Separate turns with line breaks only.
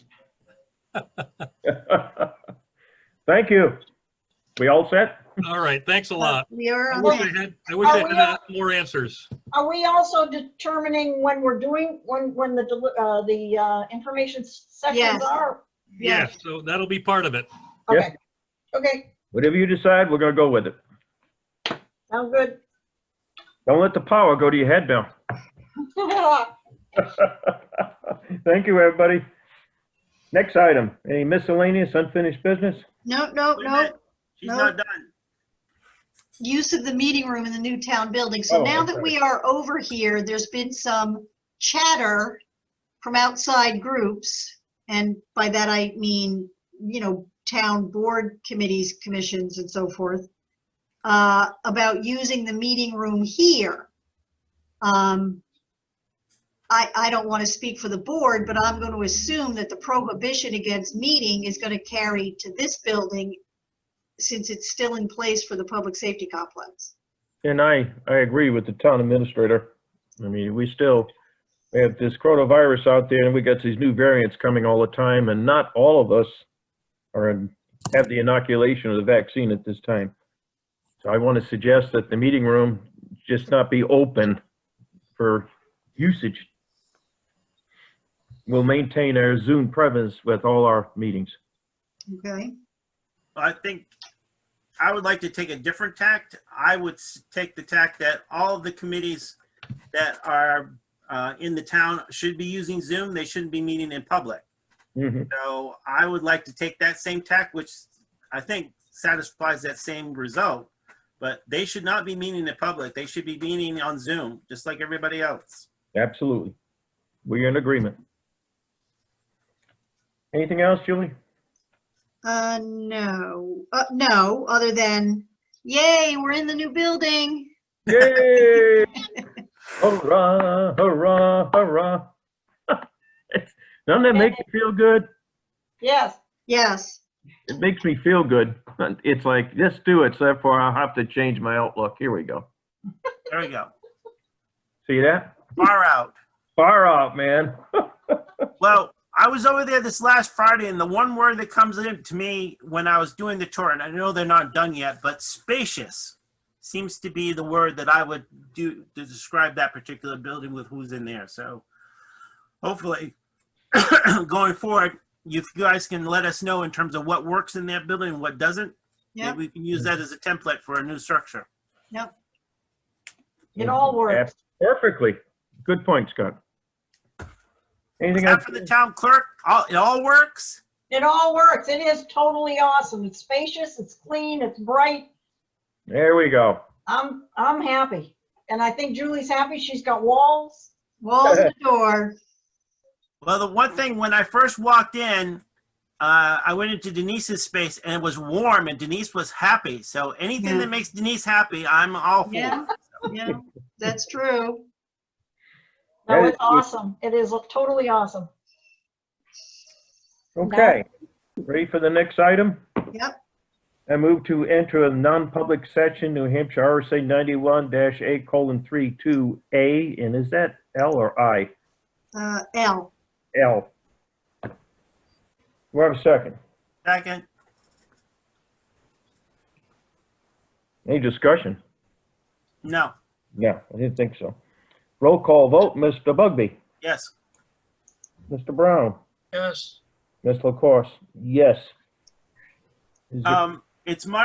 Thank you. We all set?
All right, thanks
Uh,
a lot.
We are
I
on
wish
that.
I had, I wish I had uh, more answers.
Are we also determining when we're doing, when, when the, deli- uh, the, uh, information sessions
Yes.
are?
Yeah, so that'll be part of it.
Okay, okay,
Whatever you decide, we're gonna go with it.
sound good.
Don't let the power go to your head now. Thank you, everybody. Next item, any miscellaneous unfinished business?
No, no,
Wait a
no.
minute. She's
No.
not done.
Use of the meeting room in the new town building. So
Oh,
now that
okay.
we are over here, there's been some chatter from outside groups. And by that I mean, you know, town board committees, commissions and so forth, uh, about using the meeting room here. Um, I, I don't want to speak for the board, but I'm going to assume that the prohibition against meeting is going to carry to this building since it's still in place for the public safety complex.
And I, I agree with the town administrator. I mean, we still we have this coronavirus out there and we got these new variants coming all the time and not all of us are in, have the inoculation of the vaccine at this time. So I want to suggest that the meeting room just not be open for usage. We'll maintain our Zoom presence with all our meetings.
Okay.
I think I would like to take a different tact. I would s- take the tact that all of the committees that are uh, in the town should be using Zoom. They shouldn't be meeting in public.
Mhm.
So I would like to take that same tact, which I think satisfies that same result. But they should not be meeting in public. They should be meeting on Zoom, just like everybody else.
Absolutely. We're in agreement. Anything else, Julie?
Uh, no, uh, no, other than, yay, we're in the new building.
Yay! hurrah, hurrah, hurrah. Doesn't that make you feel good?
Yes,
Yes.
It makes me feel good. It's like, let's do it, so therefore I'll have to change my outlook. Here we go.
There we go.
See that?
Far out.
Far out, man.
Well, I was over there this last Friday, and the one word that comes in to me when I was doing the tour, and I know they're not done yet, but spacious seems to be the word that I would do to describe that particular building with who's in there. So hopefully, going forward, you guys can let us know in terms of what works in that building and what doesn't.
Yep.
Maybe we can use that as a template for a new structure.
it all works.
Perfectly. Good point, Scott. Anything else?
Except for the town clerk, all, it all works.
It all works. It is totally awesome. It's spacious, it's clean, it's bright.
There we go.
I'm, I'm happy. And I think Julie's happy. She's got walls.
Walls and a door.
Well, the one thing when I first walked in, uh, I went into Denise's space and it was warm and Denise was happy. So anything
Yeah.
that makes Denise happy, I'm all for.
Yeah, yeah, that's true.
No,
That is-
it's awesome. It is totally awesome.
Okay. Ready for the next item?
Yep.
I move to enter a non-public session, New Hampshire RSA ninety-one dash A colon three two A, and is that L or I?
Uh, L,
L. We have a second.
Second,
Any discussion?
no,
Yeah, I didn't think so. Roll call vote, Mr. Bugby,
yes.
Mr. Brown,
Yes.
Ms. LaCourse, yes. Is there-
Um, it's my